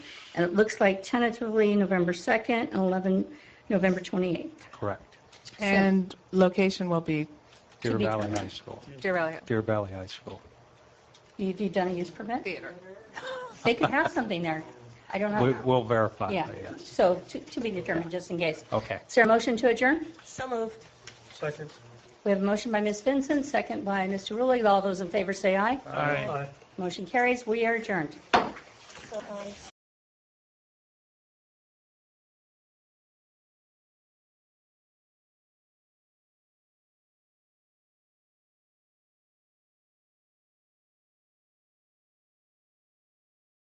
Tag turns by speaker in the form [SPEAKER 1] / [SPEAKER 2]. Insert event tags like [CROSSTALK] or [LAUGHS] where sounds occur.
[SPEAKER 1] And it looks like tentatively November 2nd and 11, November 28th.
[SPEAKER 2] Correct.
[SPEAKER 3] And location will be
[SPEAKER 2] Deer
[SPEAKER 1] be
[SPEAKER 2] Valley
[SPEAKER 1] done.
[SPEAKER 2] High School.
[SPEAKER 3] Deer Valley
[SPEAKER 2] Deer Valley High School.
[SPEAKER 1] Have you done a use permit?
[SPEAKER 3] Theater.
[SPEAKER 1] They could have something there. I don't
[SPEAKER 2] We- [LAUGHS]
[SPEAKER 1] know.
[SPEAKER 2] We'll verify
[SPEAKER 1] Yeah,
[SPEAKER 2] that, yes.
[SPEAKER 1] so to to be determined, just in case.
[SPEAKER 2] Okay.
[SPEAKER 1] Is there a motion to adjourn?
[SPEAKER 4] So moved.
[SPEAKER 5] Second.
[SPEAKER 1] We have a motion by Ms. Vincent, second by Mr. Rulli. All those in favor say aye.
[SPEAKER 5] Aye.
[SPEAKER 1] Motion carries. We are adjourned.
[SPEAKER 4] So, um,